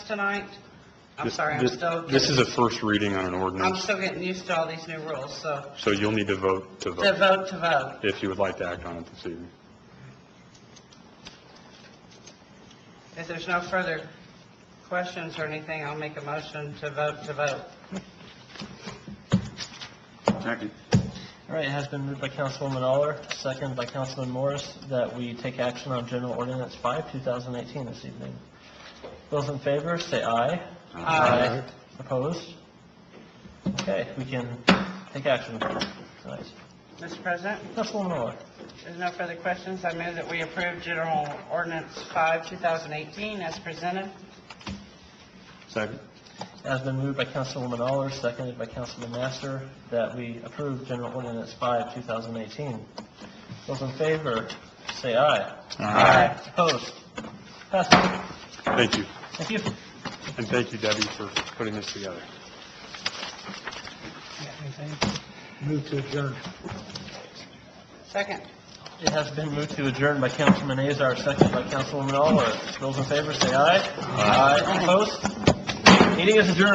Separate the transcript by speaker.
Speaker 1: tonight? I'm
Speaker 2: This-
Speaker 1: sorry, I'm
Speaker 2: this-
Speaker 1: still,
Speaker 2: This is a first reading on an
Speaker 1: I'm
Speaker 2: ordinance,
Speaker 1: still getting used to all these new rules, so,
Speaker 2: so you'll need to vote to
Speaker 1: to
Speaker 2: vote,
Speaker 1: vote, to vote.
Speaker 2: if you would like to act on it this evening.
Speaker 1: If there's no further questions or anything, I'll make a motion to vote, to vote.
Speaker 3: All right, it has been moved by Councilwoman Aller, second by Councilman Morris, that we take action on General Ordinance 5, 2018 this evening. Those in favor, say aye.
Speaker 1: Aye.
Speaker 3: Opposed? Okay, we can take action. Nice.
Speaker 1: Mr. President,
Speaker 3: Councilwoman Aller,
Speaker 1: if there's no further questions, I move that we approve General Ordinance 5, 2018, as presented.
Speaker 2: Second.
Speaker 3: it has been moved by Councilwoman Aller, seconded by Councilman Nasser, that we approve General Ordinance 5, 2018. Those in favor, say aye.
Speaker 2: Aye.
Speaker 3: Opposed? Passed.
Speaker 2: Thank you,
Speaker 3: Thank you.
Speaker 2: and thank you, Debbie, for putting this together.
Speaker 4: Move to adjourn.
Speaker 1: Second.
Speaker 3: It has been moved to adjourn by Councilman Azar, second by Councilwoman Aller. Those in favor, say aye. Aye. Opposed? Meeting is adjourned.